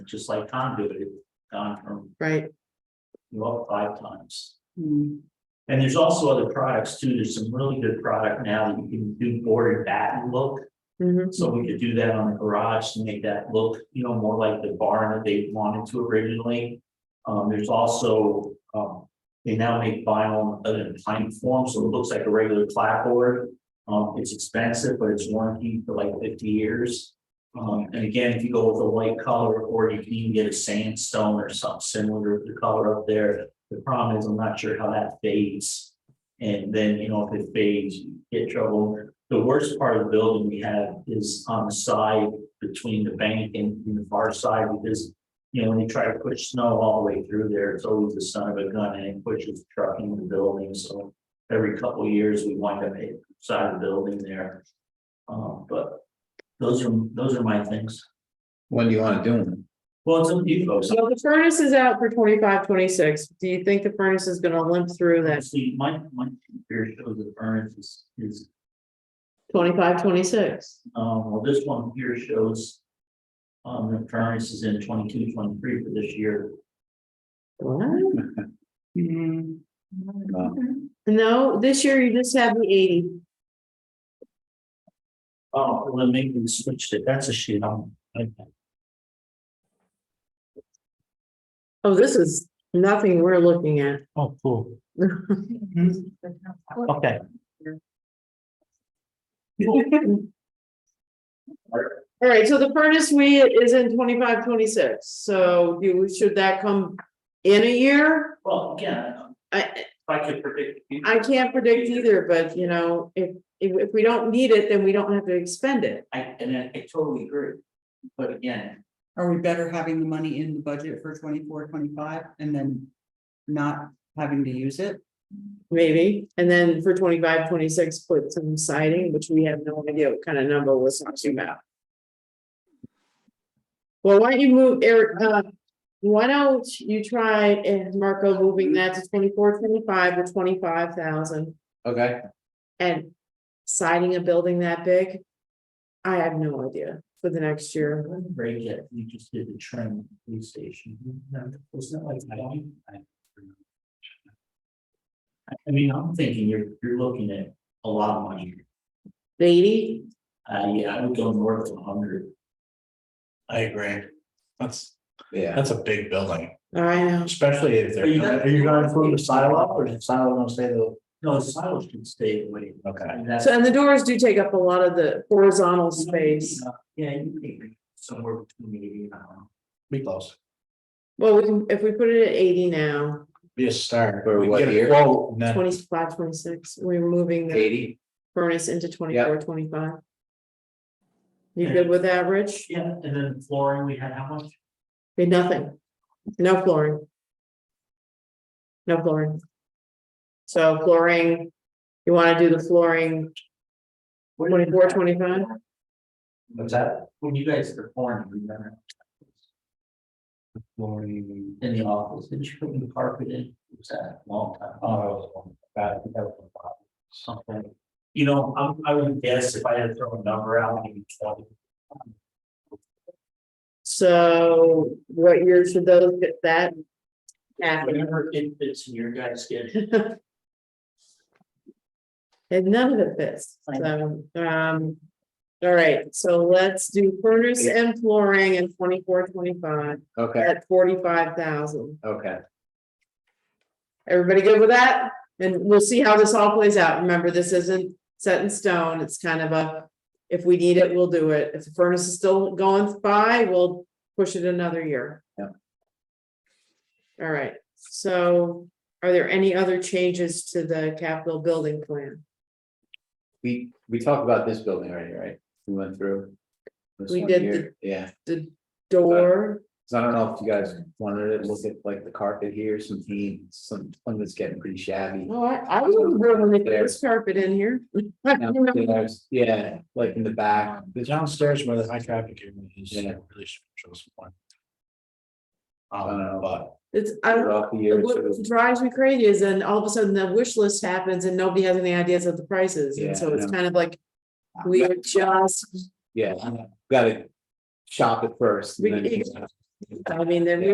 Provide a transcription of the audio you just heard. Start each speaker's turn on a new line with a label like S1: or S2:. S1: just like conduit, it gone from,
S2: right?
S1: you know, five times.
S2: Hmm.
S1: And there's also other products too, there's some really good product now that you can do board and batten look.
S2: Mhm.
S1: So we could do that on the garage to make that look, you know, more like the barn that they wanted to originally. Um, there's also, um, they now make vinyl other than pine form, so it looks like a regular clapboard. Um, it's expensive, but it's warranty for like fifty years. Um, and again, if you go with a white color, or you can even get a sandstone or something similar to the color up there. The problem is, I'm not sure how that fades. And then, you know, if it fades, you get trouble the worst part of the building we have is on the side between the bank and and the far side because. You know, when you try to push snow all the way through there, it's always the son of a gun and it pushes the truck into the building, so. Every couple of years, we wind up side of the building there. Um, but those are, those are my things.
S3: When do you wanna do them?
S1: Well, it's up to you folks.
S2: So the furnace is out for 25, 26. Do you think the furnace is gonna limp through that
S1: Actually, my, my computer shows the furnace is, is,
S2: 25, 26?
S1: um, well, this one here shows. Um, the furnace is in 22, 23 for this year.
S2: What?
S3: No.
S2: No, this year you just have the eighty.
S1: Oh, well, then maybe we switched it. That's a shit on.
S2: Oh, this is nothing we're looking at.
S1: Oh, cool. Okay.
S2: All right, so the furnace we is in twenty-five, twenty-six, so you, should that come in a year?
S1: Well, again, if I
S2: I,
S1: could predict. the future,
S2: I can't predict either, but you know, if, if, if we don't need it, then we don't have to expend it.
S1: I, and I I totally agree. But again,
S4: Are we better having the money in the budget for 24, 25, and then not having to use it?
S2: Maybe, and then for 25, 26, put some siding, which we have no idea what kind of number we're talking about. Well, why don't you move Eric, uh, why don't you try and Marco moving that to 24, 25, or twenty-five thousand?
S3: Okay,
S2: And siding a building that big? I have no idea for the next year.
S1: break it, we just did the trim at the police station. Wasn't that like? nine? I I mean, I'm thinking you're, you're looking at a lot of money.
S2: Eighty,
S1: Uh, yeah, I would go north of hundred.
S5: I agree. That's,
S3: yeah,
S5: that's a big building,
S2: I know,
S5: especially if they're.
S1: Are you gonna- are you gonna include the silo up,
S5: or is the silo gonna stay the?
S1: No, the silos should stay away.
S5: Okay.
S1: And that's-
S2: so and the doors do take up a lot of the horizontal space.
S1: Yeah, you maybe somewhere between maybe, I don't know.
S5: Be close.
S2: Well, we can, if we put it at eighty now.
S5: Be a start.
S3: For
S5: We
S3: what
S5: get a
S3: year?
S5: quote, and then-
S2: Twenty-five, twenty-six, we're moving the
S3: eighty,
S2: furnace into twenty-four, twenty-five. You good with that, Rich?
S1: Yeah, and then flooring, we had how much?
S2: Did nothing, no flooring. No flooring. So flooring, you wanna do the flooring
S1: What did you
S2: twenty-four,
S1: have?
S2: twenty-five?
S1: What's that? When you guys were pouring, remember? Flooring. In the office, did you put new carpet in? It Was that a long time? Oh. Something, you know, I'm, I would guess if I had to throw a number out, maybe twenty.
S2: So what year should those get that? Yeah,
S1: Whatever it fits in your guys' schedule.
S2: and none of it fits, so, um. All right, so let's do furnace and flooring in twenty-four, twenty-five.
S3: okay,
S2: at forty-five thousand.
S3: okay,
S2: Everybody good with that? And we'll see how this all plays out. Remember, this isn't set in stone. It's kind of a, if we need it, we'll do it. If the furnace is still going by, we'll push it another year.
S3: Yeah.
S2: All right, so are there any other changes to the capital building plan?
S3: we, we talked about this building already, right? We went through. this
S2: We
S3: one
S2: did
S3: here. Yeah,
S2: The door,
S3: so I don't know if you guys wanted to look at like the carpet here, some heat, some, one that's getting pretty shabby.
S2: oh, I, I was when they put this carpet in here.
S3: Downstairs, Yeah, like in the back,
S5: The downstairs where the high traffic area is,
S3: Yeah.
S5: it really should show some point.
S3: Uh,
S5: Um, but
S2: It's, I don't,
S3: throughout the year,
S2: What
S3: so
S2: drives me crazy is then all of a sudden the wish list happens and nobody has any ideas of the prices,
S3: Yeah,
S2: and so
S3: I
S2: it's
S3: know.
S2: kind of like. We are just,
S3: yeah, gotta shop it first. and
S2: We-
S3: then-
S2: you- I mean, they're